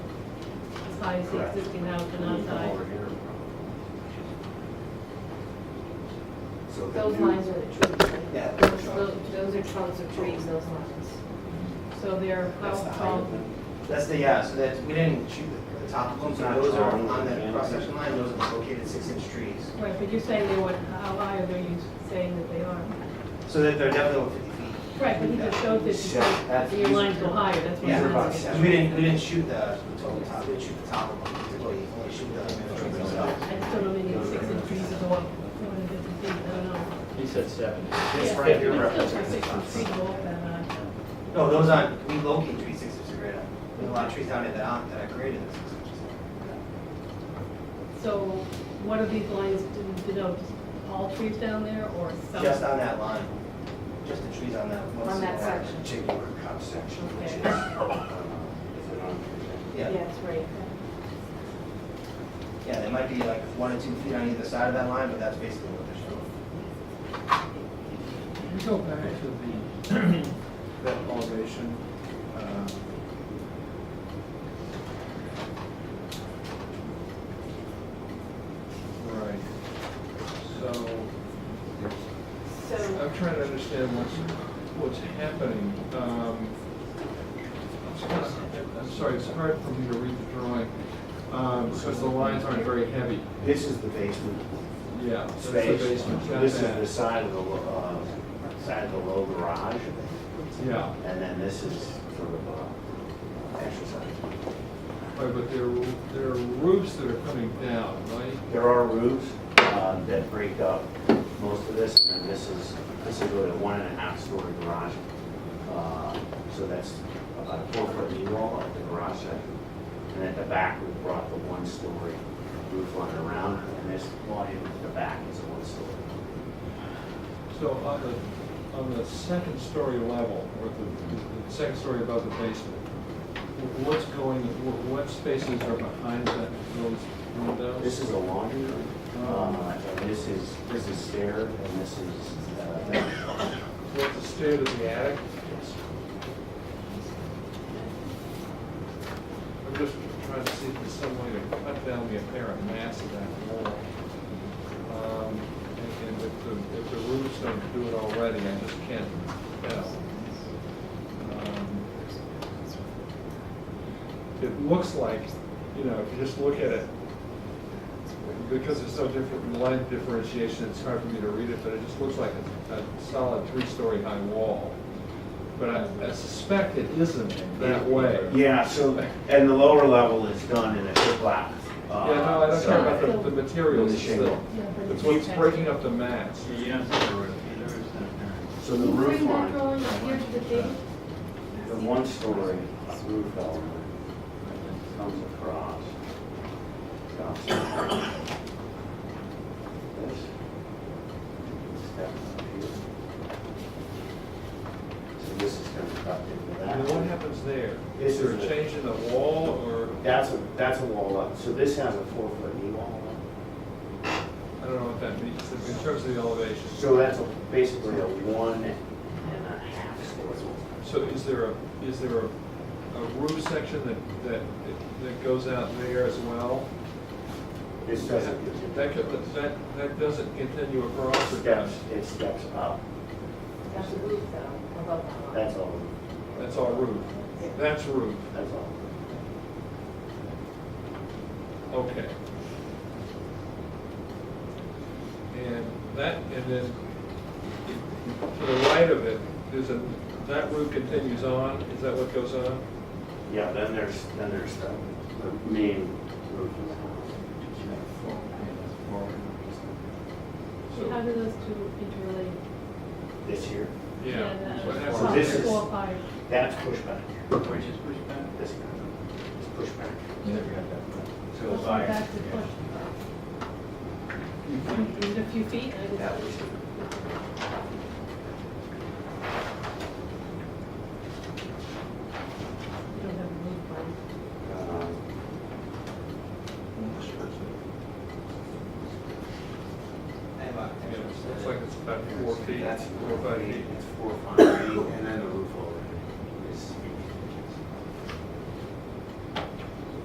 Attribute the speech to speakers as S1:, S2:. S1: size the
S2: Correct.
S1: existing house and not size.
S2: So the
S3: Those
S2: new-
S3: lines are the trees. right?
S2: Yeah, they're
S3: Those,
S2: trunks.
S3: those- those are trunks of trees, those lines.
S1: So they're how
S2: That's the height
S1: tall?
S2: of them.
S4: That's the, yeah, so that, we didn't shoot the top of them, so
S2: Not
S4: those are
S2: tall,
S4: on
S2: yeah.
S4: that cross-section line, those are the located six-inch trees.
S1: Right, but you're saying they were, how high are they, you saying that they are?
S4: So that they're definitely over fifty feet.
S1: Right, but he just showed that you
S2: Yeah, that's-
S1: said your lines go higher, that's what
S4: Yeah,
S1: I'm
S2: that's-
S1: asking.
S4: because we didn't, we didn't shoot the total top, we didn't shoot the top of them, we only- only shoot the trees themselves.
S1: I still don't need six inch trees to go up, two hundred fifty feet, I don't know.
S5: He said seven.
S4: This
S1: Yeah,
S4: right here
S1: but it's still six
S4: represents the
S1: inch
S4: top.
S1: trees to go up that uh, high.
S4: No, those aren't, we locate trees six inches greater. There's a lot of trees down there that aren't, that are greater than six inches.
S1: So what are these lines, do- do those, all trees down there or some?
S4: Just on that line, just the trees on that one.
S3: On that
S4: single line.
S3: section.
S2: Particular cut section, which is.
S1: Okay.
S2: um,
S4: Yeah.
S3: Yes, right.
S4: Yeah, there might be like one or two feet on either side of that line, but that's basically what they're showing.
S5: Can you go back to the, that elevation? um, Right, so
S3: So,
S5: I'm trying to understand what's, what's happening. Um, it's kind of- I'm sorry, it's hard for me to read the drawing, um, because the lines aren't very heavy.
S2: This is the basement
S5: Yeah, that's the
S2: space.
S5: basement, got
S2: This is
S5: that.
S2: the side of the, lo- uh, side of the low garage,
S5: Yeah.
S2: and then this is sort of, uh, exercise.
S5: Right, but there, there are roofs that are coming down, right?
S2: There are roofs uh, that break up most of this, and then this is, this is really a one and a half story garage. Uh, So that's about a four foot knee-wall at the garage section. And at the back, we brought the one story roof line around, and this volume at the back is a one story.
S5: So on the, on the second story level, or the, the second story above the basement, wh- what's going, wh- what spaces are behind that, those windows?
S2: This is a laundry room, Uh, and this is, this is stair, and this is, uh,
S5: What's the state of the attic? I'm just trying to see if there's some way to cut down the apparent mass of that wall. Um, and- And if the, if the roofs don't do it already, I just can't tell. Um, It looks like, you know, if you just look at it, because there's no different line differentiation, it's hard for me to read it, but it just looks like a a solid three-story high wall. But I I suspect it isn't that way.
S2: yeah, so, and the lower level is done in a shiplap. uh,
S5: Yeah, no, I don't care about
S2: siding.
S5: the, the materials,
S2: The
S5: it's
S2: shingle.
S5: the,
S1: Yeah, but
S5: it's what's breaking up the mats.
S6: You don't see the roof, the roof's not
S3: can
S2: So
S6: there.
S2: the
S3: you
S2: roof
S3: bring that
S2: line,
S3: drawing up here to the thing?
S2: the one story roof element comes across. stops at This. Steps up here. So this is going to cut into
S5: And then what
S2: that.
S5: happens there?
S2: This
S5: Is
S2: is
S5: there a
S2: the-
S5: change in the wall, or,
S2: That's a, that's a wall up, so this has a four foot knee wall up.
S5: I don't know what that means, in terms of the elevation?
S2: So that's a- basically a one and a half story.
S5: So is there a, is there a, a roof section that, that, that goes out there as well?
S2: This doesn't.
S5: That, could- that, that doesn't continue across or
S2: Steps,
S5: does?
S2: it steps up,
S3: That's a roof
S1: um,
S3: though, above that line.
S2: that's all,
S5: That's all roof. That's roof,
S2: that's all.
S5: okay. And that, and then to the right of it, there's a, that roof continues on, is that what goes on?
S2: Yeah, then there's, then there's the, the main roof of the house.
S1: So how
S5: So,
S1: do those two interrelate?
S2: This here,
S5: yeah.
S1: that- um,
S5: What
S2: So
S1: top
S5: happens
S2: this
S5: there?
S2: is-
S1: Four, five.
S2: that's pushback,
S6: Which is pushed back?
S2: this guy, is pushback.
S6: Never got that.
S2: So
S1: Push
S2: it's
S1: back
S2: like,
S1: to push. Is it a few feet? I
S2: that
S1: guess.
S2: was,
S1: You don't have a roof line.
S2: um,
S4: I have a-
S5: Yeah, It's like it's about four feet,
S2: that's
S5: four,
S2: four
S5: five
S2: feet,
S5: feet.
S2: that's four, five feet, and then the roof